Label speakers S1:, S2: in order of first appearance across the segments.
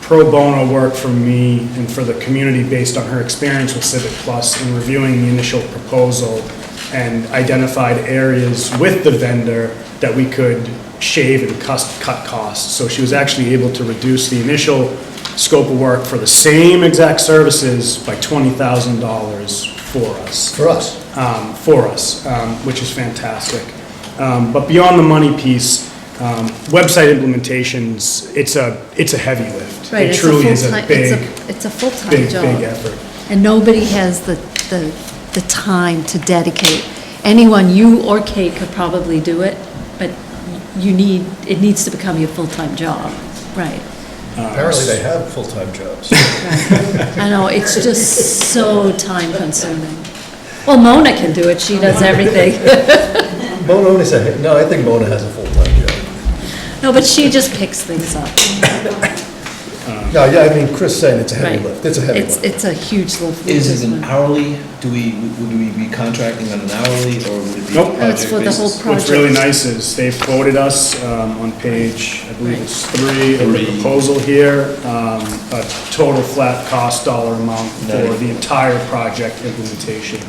S1: pro bono work for me and for the community based on her experience with Civic Plus in reviewing the initial proposal and identified areas with the vendor that we could shave and cus- cut costs. So she was actually able to reduce the initial scope of work for the same exact services by $20,000 for us
S2: for us.
S1: um, for us, um, which is fantastic. Um, But beyond the money piece, um, website implementations, it's a, it's a heavy lift.
S3: Right,
S1: It
S3: it's
S1: truly is a
S3: full-time- it's
S1: big,
S3: It's a full-time
S1: big,
S3: job.
S1: big effort.
S3: And nobody has the, the, the time to dedicate. Anyone, you or Kate could probably do it, but you need, it needs to become your full-time job, right?
S1: Uh,
S2: Apparently they have full-time jobs.
S3: I know, it's just so time-consuming. Well, Mona can do it, she does everything.
S2: Mona only said, no, I think Mona has a full-time
S1: Uh-huh.
S2: job.
S3: No, but she just picks things up.
S2: No, yeah, I mean, Chris saying it's a heavy
S3: Right.
S2: lift, it's a heavy lift.
S3: It's a huge lift.
S4: Is it an hourly, do we, would we be contracting on an hourly, or would it be
S1: Nope.
S3: No, it's
S4: project
S3: for the whole
S4: basis?
S3: project.
S1: What's really nice is they've quoted us um, on page, I believe it's three of the
S4: Three.
S1: proposal here, um, a total flat cost dollar amount for
S4: Nice.
S1: the entire project implementation.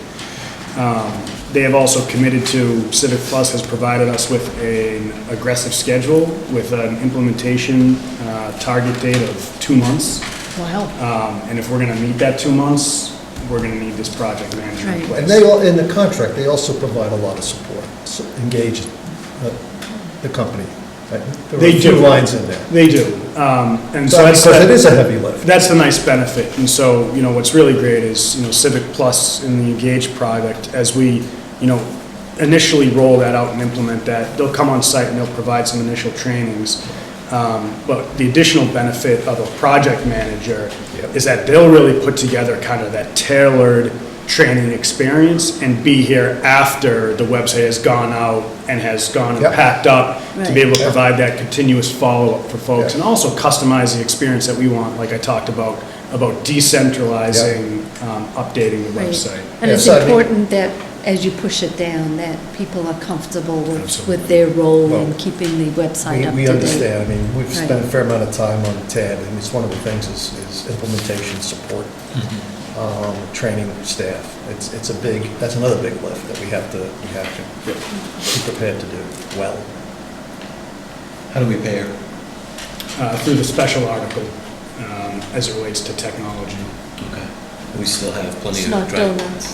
S1: Um, They have also committed to, Civic Plus has provided us with an aggressive schedule with an implementation uh, target date of two months.
S3: Wow,
S1: Um, And if we're going to meet that two months, we're going to need this project manager in
S3: Right.
S1: place.
S2: And they, all in the contract, they also provide a lot of support, so engage uh, the company. Like, There are
S1: They
S2: a few
S1: do.
S2: lines in there.
S1: They do. Um, And so that's.
S2: Because it is a heavy lift.
S1: That's the nice benefit, and so, you know, what's really great is, you know, Civic Plus and the Engage product, as we, you know, initially roll that out and implement that, they'll come on site and they'll provide some initial trainings. Um, But the additional benefit of a project manager
S2: Yep.
S1: is that they'll really put together kind of that tailored training experience and be here after the website has gone out and has gone and
S2: Yep.
S1: packed up to be
S3: Right.
S1: able to provide that continuous follow-up for folks,
S2: Yeah.
S1: and also customize the experience that we want, like I talked about, about decentralizing, um, updating the
S3: right.
S1: website.
S3: And
S2: Yeah,
S3: it's
S2: so I mean-
S3: important that, as you push it down, that people are comfortable with, with their role in
S2: Well,
S3: keeping the website
S2: We
S3: up to date.
S2: we understand, I mean, we've spent a
S3: Right.
S2: fair amount of time on TAD, and it's one of the things is is implementation support,
S4: Mm-hmm.
S2: um, training staff. It's, it's a big, that's another big lift that we have to, we have to be prepared to do well.
S4: How do we pay her?
S1: Uh, through the special article, um, as it relates to technology.
S4: Okay. We still have plenty
S3: It's
S4: of
S3: not
S4: dry.
S3: donuts.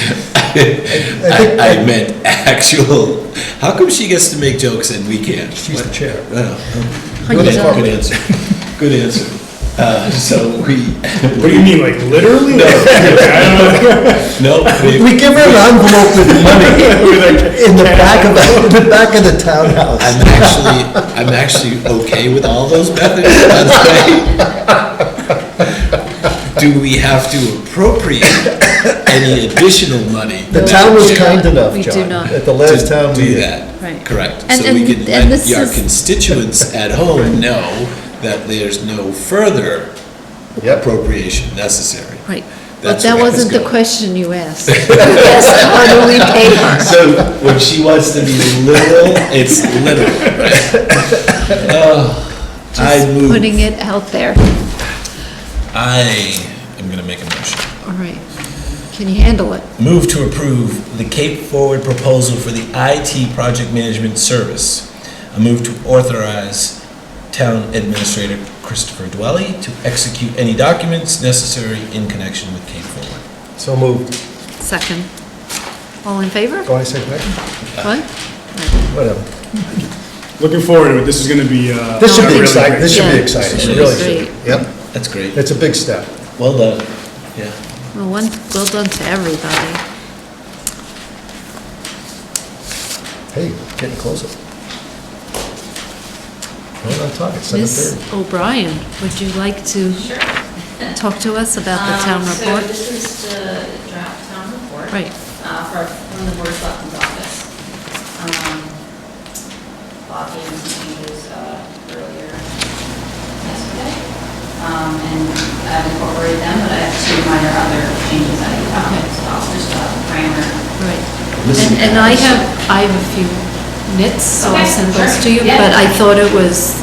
S2: I think-
S4: I I meant actual, how come she gets to make jokes and we can't?
S2: She's the chair.
S4: Oh,
S3: Honey
S4: Good
S3: dog.
S4: good answer, good answer. Uh, So we.
S1: What do you mean, like literally?
S4: No, we-
S2: We give her an envelope with money in the back of, the- in the back of the townhouse.
S4: I'm actually, I'm actually okay with all those methods, let's say. Do we have to appropriate any additional money?
S2: The town was kind enough,
S3: We do
S2: John,
S3: not.
S2: at the last
S4: to
S2: town
S4: Do
S2: meeting.
S4: that.
S3: Right.
S4: Correct.
S3: And-
S4: So we
S3: and-
S4: can
S3: and
S4: let
S3: this
S4: your
S3: is-
S4: constituents at home know that there's no further
S2: Yep.
S4: appropriation necessary.
S3: Right, but
S4: That's
S3: that
S4: where I was
S3: wasn't the
S4: going.
S3: question you asked. Yes, hourly pay her.
S4: So when she wants to be literal, it's literal. Oh, I
S3: Just
S4: move,
S3: Putting it out there.
S4: I am going to make a motion.
S3: All right. Can you handle it?
S4: Move to approve the Cape Forward proposal for the IT project management service. A move to authorize Town Administrator Christopher Dwelly to execute any documents necessary in connection with Cape Forward.
S2: So moved.
S3: Second. All in favor?
S2: Go I say that?
S3: What?
S2: Whatever.
S1: Looking forward to it, this is gonna be, uh.
S2: This should
S1: a
S2: be
S1: really
S2: exciting,
S1: great-
S2: this should be
S3: Yeah.
S2: exciting,
S4: This
S2: it
S4: should
S2: really
S3: be
S2: should. Yep,
S4: That's great.
S2: it's a big step.
S4: Well done. Yeah.
S3: Well, one, well done to everybody.
S2: Hey, getting closer. Right on target, seven thirty.
S3: Ms. O'Brien, would you like to
S5: Sure.
S3: talk to us about the town
S5: Um, So
S3: report?
S5: this is the draft town report.
S3: Right.
S5: uh, for- From the Board of Selectmen's office. Um, Bob gave me some changes uh, earlier yesterday. Um, And I've incorporated them, but I have two minor other changes I found. So I'll just uh, primer
S3: Right. And, and I have, I have a few nits, so I'll
S5: Okay,
S3: send those
S5: sure.
S3: to you,
S5: Yeah.
S3: but I thought it was,